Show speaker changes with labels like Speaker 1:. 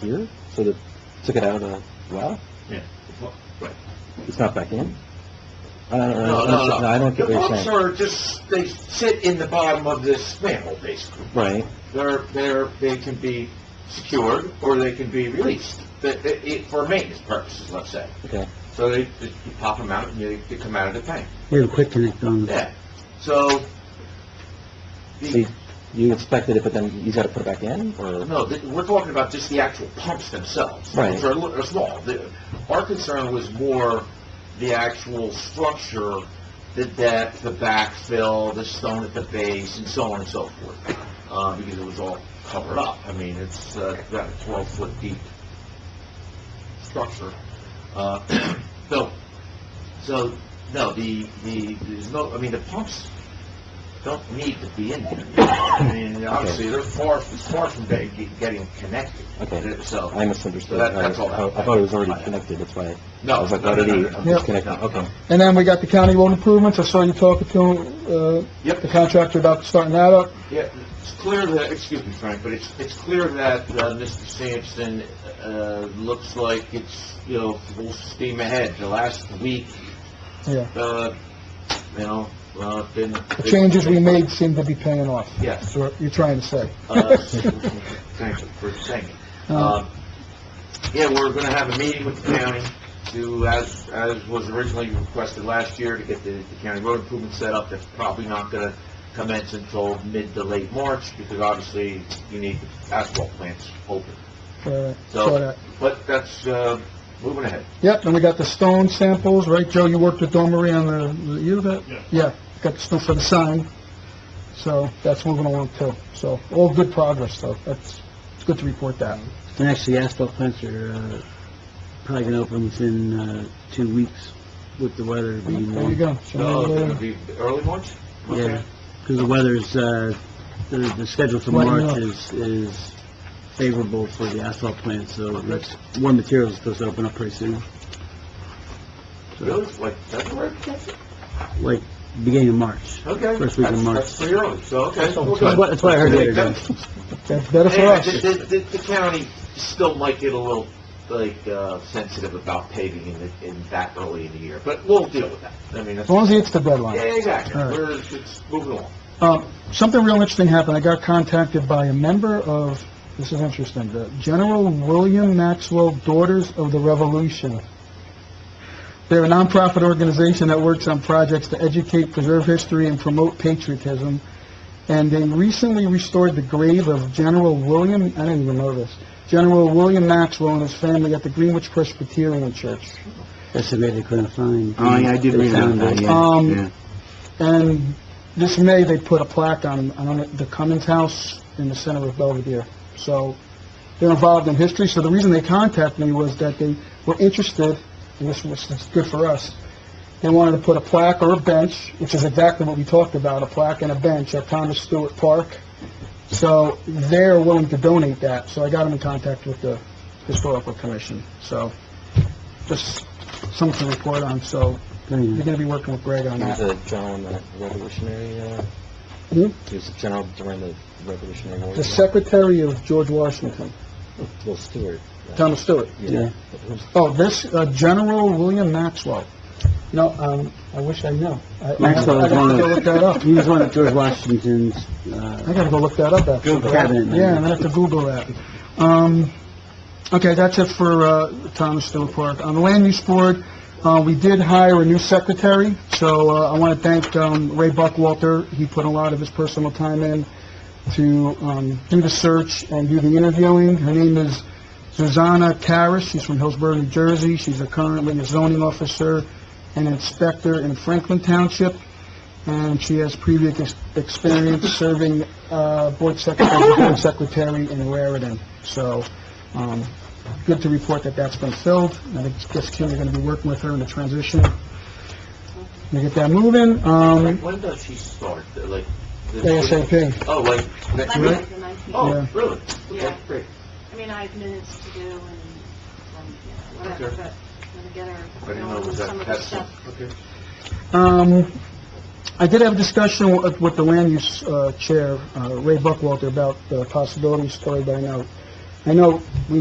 Speaker 1: here, so they took it out of, wow,
Speaker 2: Right.
Speaker 1: it's not back in? I don't, I
Speaker 2: No,
Speaker 1: don't,
Speaker 2: no, no.
Speaker 1: I don't
Speaker 2: The
Speaker 1: get what you're
Speaker 2: books
Speaker 1: saying.
Speaker 2: are just, they sit in the bottom of this manhole, basically.
Speaker 1: Right,
Speaker 2: They're, they're, they can be secured, or they can be released, that, that- it- for maintenance purposes, let's say.
Speaker 1: okay.
Speaker 2: So they, they- you pop them out, and they, they come out of the tank.
Speaker 3: Real quick connect on that.
Speaker 2: Yeah, so,
Speaker 1: See,
Speaker 2: the,
Speaker 1: you inspected it, but then you gotta put it back in, or?
Speaker 2: no, th- we're talking about just the actual pumps themselves.
Speaker 1: Right.
Speaker 2: Which are, li- are small. The- Our concern was more the actual structure, the depth, the backfill, the stone at the base, and so on and so forth. Uh, because it was all covered up. I mean, it's, uh, about a twelve-foot deep structure, uh, built. So, no, the, the, there's no, I mean, the pumps don't need to be in there. I mean, obviously, they're far, far from de- ge- getting connected.
Speaker 1: Okay.
Speaker 2: So,
Speaker 1: I misunderstood.
Speaker 2: That- that's all.
Speaker 1: I I thought it was already connected, that's why
Speaker 2: no.
Speaker 1: I was like,
Speaker 2: no,
Speaker 1: what
Speaker 2: no,
Speaker 1: did he,
Speaker 2: no, no,
Speaker 1: I'm
Speaker 2: no.
Speaker 1: disconnecting, okay.
Speaker 4: And then we got the county road improvements, I saw you talking to, uh,
Speaker 2: Yep.
Speaker 4: the contractor about starting that up.
Speaker 2: Yeah, it's clear that, excuse me, Frank, but it's, it's clear that, uh, Mr. Sampson, uh, looks like it's, you know, full steam ahead. The last week,
Speaker 4: Yeah.
Speaker 2: uh, you know, uh, been...
Speaker 4: The changes we made seem to be paying off.
Speaker 2: Yes.
Speaker 4: That's what you're trying to say.
Speaker 2: Uh, Thank you for saying it.
Speaker 3: Uh,
Speaker 2: Um, Yeah, we're going to have a meeting with the county to, as, as was originally requested last year, to get the the county road improvement set up. That's probably not going to commence until mid to late March, because obviously you need the asphalt plants open.
Speaker 4: Uh, saw
Speaker 2: So,
Speaker 4: that.
Speaker 2: but that's, uh, moving ahead.
Speaker 4: Yep, and we got the stone samples, right, Joe, you worked with Don Marie on the, was it you that?
Speaker 5: Yeah.
Speaker 4: got the stone for the sign, so that's moving along too. So, all good progress, though, that's, it's good to report that.
Speaker 3: And actually, asphalt plants are, uh, probably gonna open within, uh, two weeks with the weather being
Speaker 4: There you
Speaker 3: warm.
Speaker 4: go.
Speaker 2: So, it's going to be early March?
Speaker 3: Yeah, because the weather's, uh, the, the schedule for
Speaker 4: Right
Speaker 3: March
Speaker 4: now.
Speaker 3: is, is favorable for the asphalt plant, so that's,
Speaker 4: uh,
Speaker 3: warm materials is supposed to open up pretty soon,
Speaker 2: Really? Like February?
Speaker 3: like, beginning of March.
Speaker 2: Okay.
Speaker 3: First week of
Speaker 2: That's-
Speaker 3: March.
Speaker 2: That's pretty early, so, okay. we're
Speaker 3: That's
Speaker 2: good.
Speaker 3: what, that's what I heard the other day.
Speaker 4: That's better for
Speaker 2: Yeah,
Speaker 4: us.
Speaker 2: the, the, the- the county still might get a little, like, uh, sensitive about paving in, the- in that early in the year, but we'll deal with that. I mean,
Speaker 4: As
Speaker 2: that's,
Speaker 4: long as he hits the
Speaker 2: yeah,
Speaker 4: deadline.
Speaker 2: exactly,
Speaker 4: All right.
Speaker 2: we're, it's moving along.
Speaker 4: Um, something real interesting happened. I got contacted by a member of, this is interesting, the General William Maxwell Daughters of the Revolution. They're a nonprofit organization that works on projects to educate, preserve history, and promote patriotism. And they recently restored the grave of General William, I didn't even know this, General William Maxwell and his family at the Greenwich Presbyterian Church.
Speaker 3: That's the way they couldn't find.
Speaker 6: Oh, yeah, I did read about that, yeah.
Speaker 4: Um,
Speaker 6: yeah.
Speaker 4: And this May, they put a plaque on, on the Cummins House in the center of Belvedere. So they're involved in history. So the reason they contacted me was that they were interested, and this was this is good for us, they wanted to put a plaque or a bench, which is exactly what we talked about, a plaque and a bench at Thomas Stewart Park. So they're willing to donate that. So I got them in contact with the Historical Commission. So just something to report on. So
Speaker 3: Very
Speaker 4: you're
Speaker 3: nice.
Speaker 4: going to be working with Greg on
Speaker 1: He
Speaker 4: that.
Speaker 1: was a general in the Revolutionary, uh,
Speaker 4: Hmm?
Speaker 1: he was a general during the Revolutionary War.
Speaker 4: The secretary of George Washington,
Speaker 1: Well, Stewart. uh,
Speaker 4: Thomas Stewart.
Speaker 3: Yeah.
Speaker 1: Who's-
Speaker 4: Oh, this, uh, General William Maxwell. No, um, I wish I knew. I- I-
Speaker 3: Maxwell
Speaker 4: I
Speaker 3: was
Speaker 4: gotta
Speaker 3: one
Speaker 4: go look that up.
Speaker 3: of, he was one of George Washington's,
Speaker 4: I
Speaker 3: uh,
Speaker 4: gotta go look that up after.
Speaker 3: Google cabinet members.
Speaker 4: Yeah, I'm gonna have to Google that. Um, okay, that's it for, uh, Thomas Stewart Park. On the land use board, uh, we did hire a new secretary, so, uh, I wanna thank, um, Ray Buckwalter. He put a lot of his personal time in to, um, do the search and do the interviewing. Her name is Susanna Karas, she's from Hillsborough, New Jersey, she's a currently a zoning officer and inspector in Franklin Township, and she has previous ex- experience serving, uh, board secretary, board secretary in Raritan. So, um, good to report that that's been filled, I think Jess Kim, you're gonna be working with her in the transition. Gonna get that moving, um,
Speaker 2: When does she start, like? the-
Speaker 4: ASAP,
Speaker 2: Oh, like, next
Speaker 4: Monday.
Speaker 2: week?
Speaker 7: Monday, the nineteenth.
Speaker 2: Oh,
Speaker 4: Yeah.
Speaker 2: really?
Speaker 7: Yeah.
Speaker 2: Okay, great.
Speaker 7: I mean, I have minutes to do and, um, you know, whatever,
Speaker 2: Okay.
Speaker 7: but I'm gonna get
Speaker 2: I
Speaker 7: her,
Speaker 2: didn't
Speaker 7: you
Speaker 2: know it
Speaker 7: know,
Speaker 2: was
Speaker 7: some
Speaker 2: that,
Speaker 7: of the
Speaker 2: that's,
Speaker 7: stuff.
Speaker 2: okay.
Speaker 4: Um, I did have a discussion with with the land use uh, chair, uh, Ray Buckwalter, about the possibilities story, but I know, I know we